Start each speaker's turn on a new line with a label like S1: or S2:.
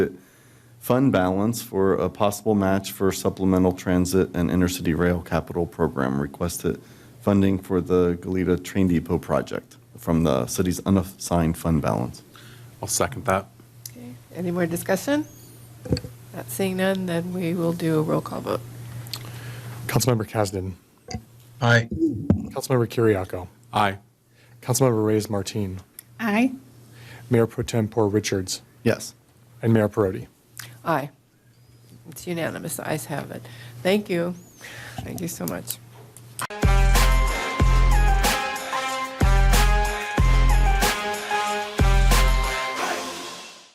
S1: fund balance for a possible match for supplemental transit and intercity rail capital program. Requested funding for the Galita Train Depot project from the city's unassigned fund balance.
S2: I'll second that.
S3: Okay. Any more discussion? Not seeing none, then we will do a roll call vote.
S4: Councilmember Kasdan.
S5: Aye.
S4: Councilmember Kiriako.
S2: Aye.
S4: Councilmember Reyes Martin.
S6: Aye.
S4: Mayor Pro Tempore Richards.
S1: Yes.
S4: And Mayor Perotti.
S3: Aye. It's unanimous, the ayes have it. Thank you. Thank you so much.